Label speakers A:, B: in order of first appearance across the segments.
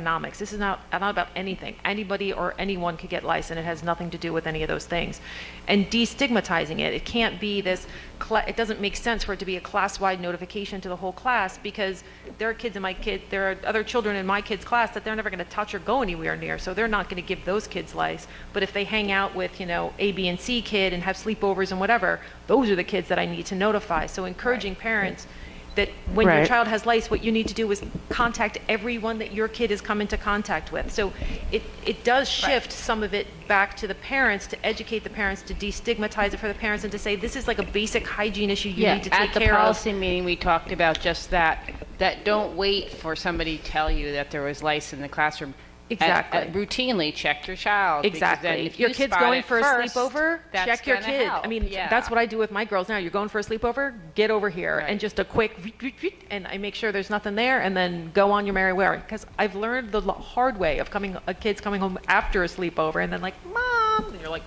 A: economics. This is not, not about anything. Anybody or anyone could get licensed. It has nothing to do with any of those things. And destigmatizing it, it can't be this, cla- it doesn't make sense for it to be a class-wide notification to the whole class because there are kids in my kid, there are other children in my kid's class that they're never going to touch or go anywhere near, so they're not going to give those kids lice. But if they hang out with, you know, A, B, and C kid and have sleepovers and whatever, those are the kids that I need to notify. So encouraging parents that when your
B: Right.
A: child has lice, what you need to do is contact everyone that your kid has come into contact with. So it, it does shift some of it back to the parents, to educate the parents, to destigmatize it for the parents, and to say, this is like a basic hygiene issue you
B: Yeah,
A: need to take
B: at the
A: care of.
B: policy meeting, we talked about just that, that don't wait for somebody to tell you that there was lice in the classroom. A- a-
A: Exactly.
B: Routinely check your child. because then
A: Exactly.
B: if
A: If your
B: you
A: kid's
B: spot
A: going
B: it
A: for a
B: first,
A: sleepover,
B: that's
A: check your
B: gonna
A: kid. I
B: help.
A: mean,
B: Yeah.
A: that's what I do with my girls now. You're going for a sleepover? Get over here. And
B: Right.
A: just a quick, "Weet, weet, weet," and I make sure there's nothing there, and then go on your merry way. Because I've learned the lo- hard way of coming, a kid's coming home after a sleepover, and then like, mom, and you're like,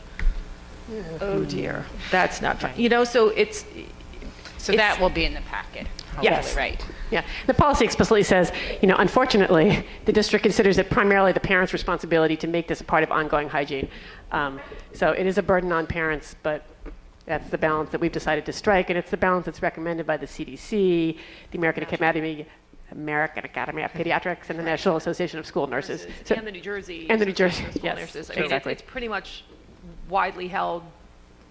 A: oh dear, that's not fun. You know, so it's,
B: So
A: it's-
B: that will be in the packet.
C: Yes.
B: hopefully, Right.
C: Yeah, the policy explicitly says, you know, unfortunately, the district considers it primarily the parents' responsibility to make this a part of ongoing hygiene. Um, So it is a burden on parents, but that's the balance that we've decided to strike, and it's the balance that's recommended by the CDC, the American Academy, American Academy of Pediatrics, and the National Association of School Nurses. So-
A: and the New Jersey.
C: And the New Jersey,
A: School
C: yes,
A: nurses. I mean, it's-
C: exactly.
A: It's pretty much widely held,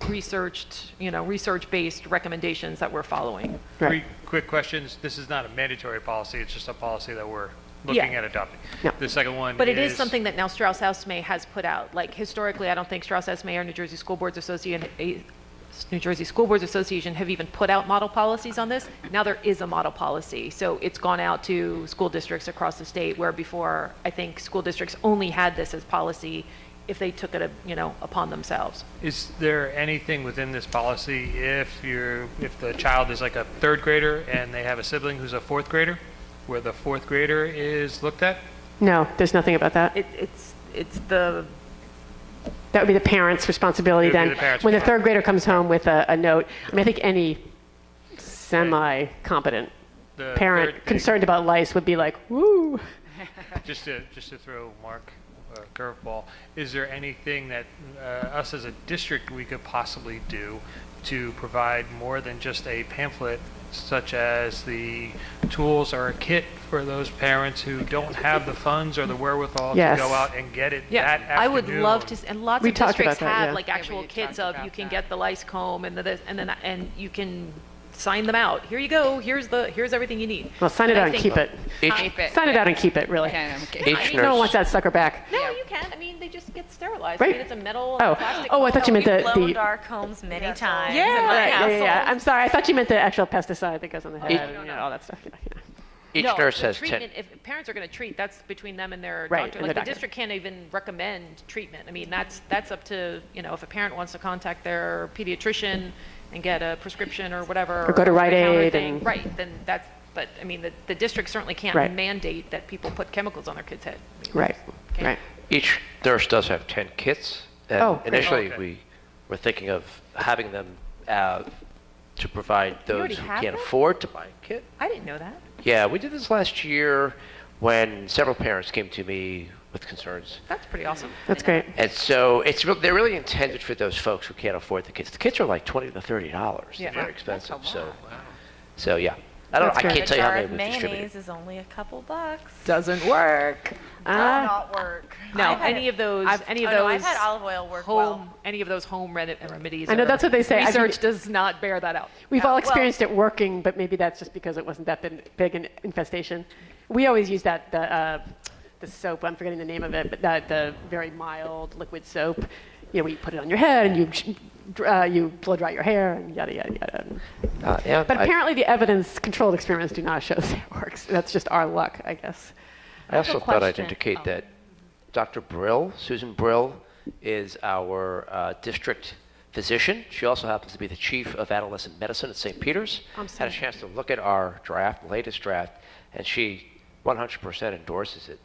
A: researched, you know, research-based recommendations that we're following.
C: Right.
D: Three quick questions. This is not a mandatory policy, it's just a policy that we're looking
A: Yeah.
D: at adopting.
C: Yeah.
D: The second one is.
A: But it is something that now Strauss Esme has put out. Like historically, I don't think Strauss Esme or New Jersey School Boards Association, eh, New Jersey School Boards Association have even put out model policies on this. Now there is a model policy. So it's gone out to school districts across the state where before, I think school districts only had this as policy if they took it, uh, you know, upon themselves.
D: Is there anything within this policy if you're, if the child is like a third grader and they have a sibling who's a fourth grader, where the fourth grader is looked at?
C: No, there's nothing about that.
A: It, it's, it's the,
C: That would be the parents' responsibility
D: It would be
C: then.
D: the parents'
C: When the third grader comes home with a, a note, I mean, I think any semi-competent
D: The
C: parent
D: third-
C: concerned about lice would be like, woo.
D: Just to, just to throw Mark a curveball, is there anything that uh, us as a district, we could possibly do to provide more than just a pamphlet, such as the tools or a kit for those parents who don't have the funds or the wherewithal to
C: Yes.
D: go out and get it that
A: Yeah,
D: afternoon?
A: I would love to, s- and lots
C: We
A: of
C: talked
A: districts
C: about that,
A: have
C: yeah.
A: like
B: Yeah, we
A: actual
B: had
A: kits of,
B: talked
A: you
B: about
A: can
B: that.
A: get the lice comb and the, this- and then, and you can sign them out. Here you go, here's the, here's everything you need.
C: Well, sign it
A: And I
C: out and
A: think-
C: keep it.
E: Each,
B: Keep it.
C: Sign it out and keep it, really.
B: Okay, I'm kidding.
E: each
C: No one
E: nurse,
C: wants that sucker back.
A: No, you can, I mean, they just get sterilized. I
C: Right.
A: mean, it's a metal
C: Oh.
A: and plastic.
C: Oh, I
A: comb.
C: thought you meant the,
F: blown
C: the,
F: dark homes many times.
C: yeah,
F: in my
C: yeah, yeah, yeah.
F: household.
C: I'm sorry, I thought you meant the actual pesticide that goes on the head, and, you know, all that stuff. Yeah, yeah.
E: each
A: No,
E: nurse
A: the
E: has 10.
A: treatment- If parents are going to treat, that's between them and their
C: Right,
A: doctor.
C: and
A: Like, the
C: the doctor.
A: district can't even recommend treatment. I mean, that's, that's up to, you know, if a parent wants to contact their pediatrician and get a prescription or whatever.
C: Or go to Rite
A: over-the-counter
C: Aid
A: thing,
C: and-
A: Right, then that's, but, I mean, the, the district certainly can't
C: Right.
A: mandate that people put chemicals on their kid's head. I mean,
C: Right,
A: Okay.
C: right.
E: Each nurse does have 10 kits. And
C: Oh, great.
E: initially,
D: Okay.
E: we were thinking of having them uh, to provide
A: already
E: those who
A: have
E: can't
A: them?
E: afford to buy a kit.
A: I didn't know that.
E: Yeah, we did this last year when several parents came to me with concerns.
A: That's pretty awesome.
C: That's great.
E: And so it's real they're really intended for those folks who can't afford the kits. The kits are like 20 to 30 dollars.
A: Yeah.
E: They're very
B: That's a
E: expensive. So,
B: lot.
E: so yeah. I don't.
C: That's
E: I
C: great.
E: can't
F: A
E: tell you how
F: jar
E: many
F: of
E: we've distributed.
F: mayonnaise is only a couple bucks.
A: Doesn't work.
F: Does not work.
A: Ah. No,
F: I've had
A: any
F: it-
A: of those,
F: I've-
A: any of
F: oh, no, I've
A: those
F: had olive oil work
A: home,
F: well.
A: any of those home redi- remedies.
C: I know,
A: are-
C: that's what they say. I think-
A: Research does not bear that out.
C: We've all
F: well-
C: experienced it working, but maybe that's just because it wasn't that bin- big an infestation. We always use that, the, uh, the soap, I'm forgetting the name of it, but that, the very mild liquid soap. You know, where you put it on your head and you, sh- dr- uh, you blow dry your hair and yada, yada, yada.
E: Uh, yeah,
C: But
E: I-
C: apparently the evidence, controlled experiments do not show that it works. That's just our luck, I guess.
E: I also thought I'd
B: question.
C: Oh.
E: indicate that Dr. Brill, Susan Brill, is our uh, district physician. She also happens to be the chief of adolescent medicine at St. Peter's.
C: I'm
E: Had
C: sorry.
E: a chance to look at our draft, latest draft, and she 100% endorses it.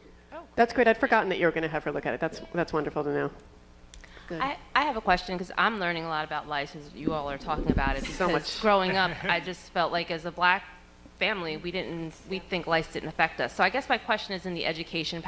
C: That's great. I'd forgotten that you were going to have her look at it. That's, that's wonderful to know.
G: I, I have a question because I'm learning a lot about lice as you all are talking about it. Because
C: So much.
G: growing up, I just felt like as a black family, we didn't, we think lice didn't affect us. So I guess my question is in the education